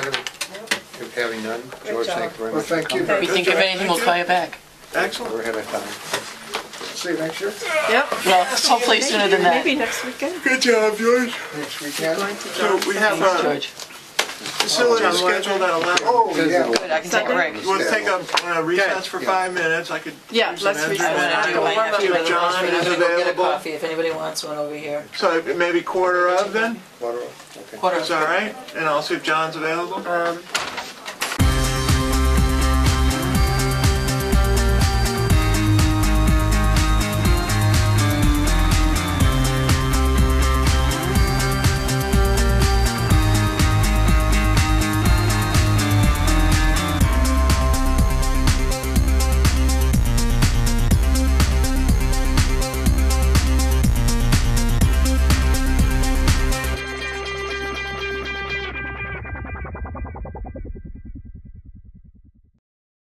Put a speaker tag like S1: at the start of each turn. S1: Having none, George,
S2: job.
S1: thank you very
S3: Well,
S1: much. for
S3: thank you.
S2: If
S4: If we
S3: Good
S4: think of
S3: job.
S4: anything, we'll call you back.
S1: coming. We're
S3: Excellent.
S1: ahead of time.
S3: See you next year,
S2: Yep.
S4: Well, hopefully sooner than that.
S2: Maybe next weekend.
S5: Good job, George.
S3: next
S2: Going
S3: weekend.
S2: to
S5: So
S2: John's.
S5: we have
S4: Thanks,
S5: a
S4: George.
S5: facility
S2: John Lloyd.
S5: scheduled at 11.
S3: Oh, yeah.
S4: Good, I can take a break.
S5: You want to take a uh, recess for
S3: Yeah.
S5: five minutes? I could.
S2: Yeah,
S5: do some
S2: let's
S5: entry
S2: recess.
S5: and
S2: I
S5: do
S2: will
S5: it.
S2: warm up
S5: See if
S2: for the
S5: John
S2: lunch.
S5: is
S6: I'm gonna go get a
S5: available.
S6: coffee if anybody wants one over here.
S5: So maybe quarter of then?
S1: Water off, okay.
S4: Quarter
S5: Is that all right? And I'll see if John's available.
S2: Um,